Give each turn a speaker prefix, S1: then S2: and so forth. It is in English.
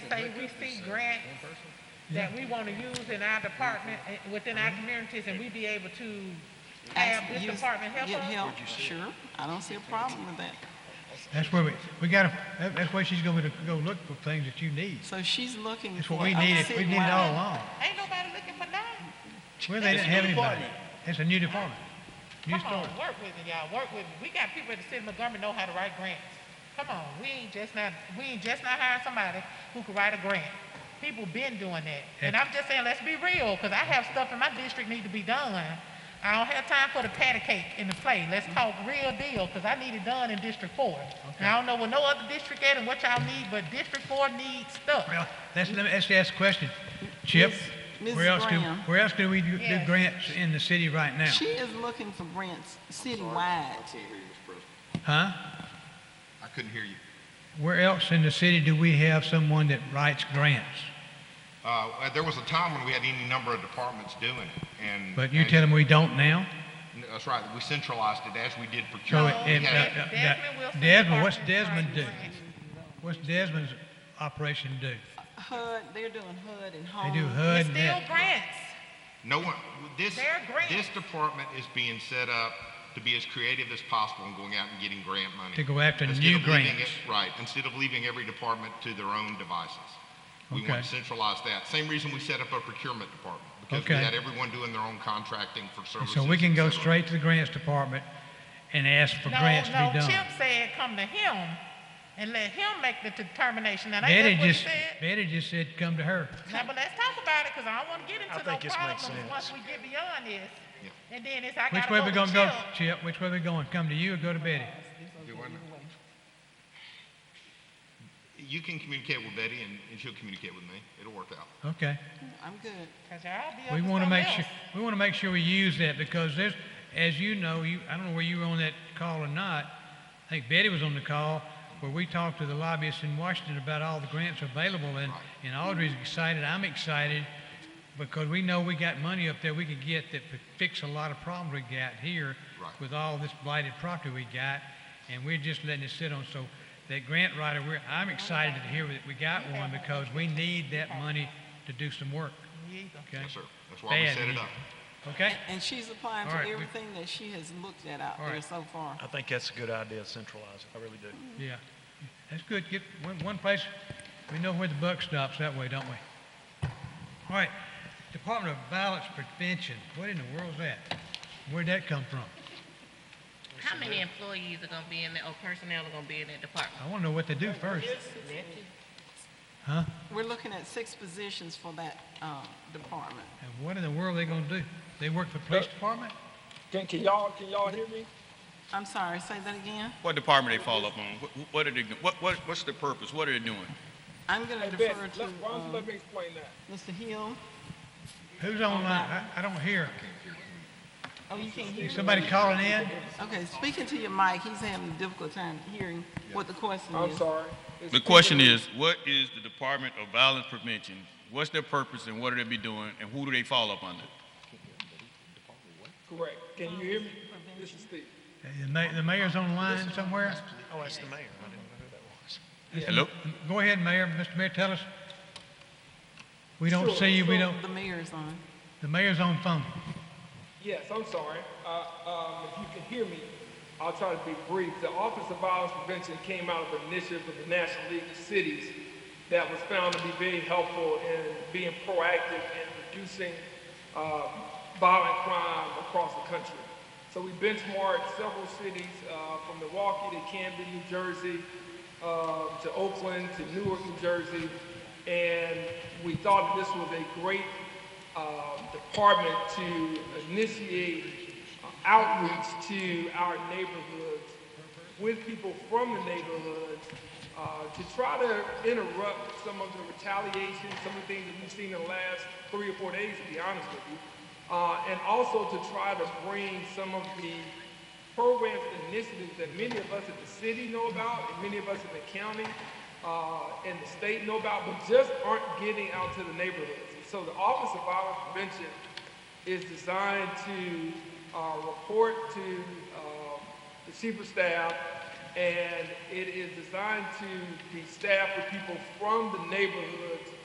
S1: say we see grants that we want to use in our department, eh, within our communities, and we be able to have
S2: Ask-
S1: this
S2: use-
S1: department help
S2: Get
S1: us?
S2: help, sure. I don't see a problem with that.
S3: That's where we, we gotta, that- that's where she's gonna go look for things that you need.
S2: So she's looking
S3: That's
S2: for.
S3: what we
S2: a
S3: needed, we needed
S2: citywide-
S3: all along.
S1: Ain't nobody looking for nothing.
S3: Well, they didn't have anybody. It's a new department. New
S1: Come on,
S3: story.
S1: work with me, y'all, work with me. We got people at the city of Montgomery know how to write grants. Come on, we ain't just not, we ain't just not hiring somebody who can write a grant. People been doing that. And I'm just saying, let's be real, because I have stuff in my district need to be done. I don't have time for the patty cake in the play. Let's talk real deal, because I need it done in District Four. And I don't know what no other district at and what y'all need, but District Four needs stuff.
S3: Well, let's, let me, let's ask a question. Chip,
S2: Miss-
S3: where
S2: Mrs.
S3: else do,
S2: Graham.
S3: where else do we do do
S1: Yes.
S3: grants in the city right now?
S2: She is looking for grants citywide.
S3: Huh?
S4: I couldn't hear you.
S3: Where else in the city do we have someone that writes grants?
S4: Uh, there was a time when we had any number of departments doing it, and.
S3: But you tell them we don't now?
S4: That's right, we centralized it as we did
S3: So
S4: procurement.
S3: it-
S4: We
S3: it-
S4: had-
S3: uh, uh,
S1: Desmond Wilson
S3: that- Desmond, what's
S1: Department
S3: Desmond
S1: of
S3: do?
S1: Grants.
S3: What's Desmond's operation do?
S2: HUD, they're doing HUD and
S3: They
S2: home.
S3: do
S1: It's
S3: HUD and
S1: still
S3: that.
S1: grants.
S4: No one, this,
S1: They're grants.
S4: this department is being set up to be as creative as possible in going out and getting grant money.
S3: To go after
S4: Instead
S3: new
S4: of leaving
S3: grants.
S4: it- Right, instead of leaving every department to their own devices. We
S3: Okay.
S4: want to centralize that. Same reason we set up a procurement department, because we
S3: Okay.
S4: had everyone doing their own contracting for services.
S3: So we can
S4: et
S3: go
S4: cetera.
S3: straight to the grants department and ask for
S1: No,
S3: grants to
S1: no,
S3: be done.
S1: Chip said come to him and let him make the determination. Now,
S3: Betty
S1: ain't that what he
S3: just,
S1: said?
S3: Betty just said, come to her.
S1: Now, but let's talk about it, because I don't want to get into
S5: I
S1: no
S5: think this makes
S1: problems once we get beyond this. And then it's, I
S3: Which
S1: gotta
S3: way we
S1: go
S3: gonna
S1: to
S3: go,
S1: Chip.
S3: Chip? Which way we going? Come to you or go to Betty?
S4: You can communicate with Betty and and she'll communicate with me. It'll work out.
S3: Okay.
S2: I'm good.
S1: 'Cause y'all be up
S3: We wanna
S1: something
S3: make sure,
S1: else.
S3: we wanna make sure we use that because there's, as you know, you, I don't know where you were on that call or not. I think Betty was on the call where we talked to the lobbyists in Washington about all the grants available and, and Audrey's excited, I'm excited because we know we got money up there we could get that could fix a lot of problems we got here
S4: Right.
S3: with all this blighted property we got and we're just letting it sit on. So that grant writer, we're, I'm excited to hear that we got one because we need that money to do some work. Okay?
S4: Yes, sir. That's why we
S3: Bad
S4: set it
S3: idea.
S4: up.
S3: Okay?
S2: And she's applying
S3: All
S2: for
S3: right, we-
S2: everything that she has looked at out
S3: All
S2: there
S3: right.
S2: so far.
S5: I think that's a good idea, centralize it. I really do.
S3: Yeah. That's good. Get one, one place, we know where the buck stops that way, don't we? All right. Department of Violence Prevention. What in the world's that? Where'd that come from?
S6: How many employees are gonna be in that, or personnel are gonna be in that department?
S3: I want to know what they do first. Huh?
S2: We're looking at six positions for that uh, department.
S3: And what in the world are they going to do? They work for the police department?
S7: Can, can y'all can y'all hear me?
S2: I'm sorry, say that again.
S8: What department they follow up on? What- What are they, what, what, what's the purpose? What are they doing?
S2: I'm going
S7: Hey,
S2: to
S7: Ben,
S2: defer
S7: let,
S2: to
S7: why don't you
S2: um,
S7: let me explain that?
S2: Mr. Hill.
S3: Who's online? I, I don't hear.
S2: Oh, you can't hear?
S3: Is
S2: me?
S3: somebody calling in?
S2: Okay, speaking to your mic, he's having a difficult time hearing what the question
S7: I'm
S2: is.
S7: sorry. It's
S8: The question is, what is the Department of Violence Prevention? What's their purpose and what are they be doing and who do they follow up under?
S7: correct. Can you hear me? This is Steve.
S3: The ma- The mayor's online somewhere?
S5: Oh, that's the mayor. I didn't know who that was.
S8: Hello?
S3: Go ahead, Mayor. Mr. Mayor, tell us. We don't
S7: Sure,
S3: see you. We
S2: So
S3: don't,
S2: The mayor's on.
S3: the mayor's on phone.
S7: Yes, I'm sorry. Uh, um, if you can hear me, I'll try to be brief. The Office of Violence Prevention came out of an initiative of the National League of Cities that was found to be very helpful in being proactive in reducing uh, violent crime across the country. So we benchmarked several cities uh, from Milwaukee to Camden, New Jersey, um, to Oakland, to Newark, New Jersey, and we thought that this was a great um, department to initiate uh, outreach to our neighborhoods with people from the neighborhoods uh, to try to interrupt some of the retaliation, some of the things that we've seen in the last three or four days, to be honest with you, uh, and also to try to bring some of the programs and initiatives that many of us in the city know about, and many of us in the county, uh, and the state know about, but just aren't getting out to the neighborhoods. And so the Office of Violence Prevention is um, designed to, uh, report to, uh, the chief of staff, and it is designed to be staffed with people from the neighborhood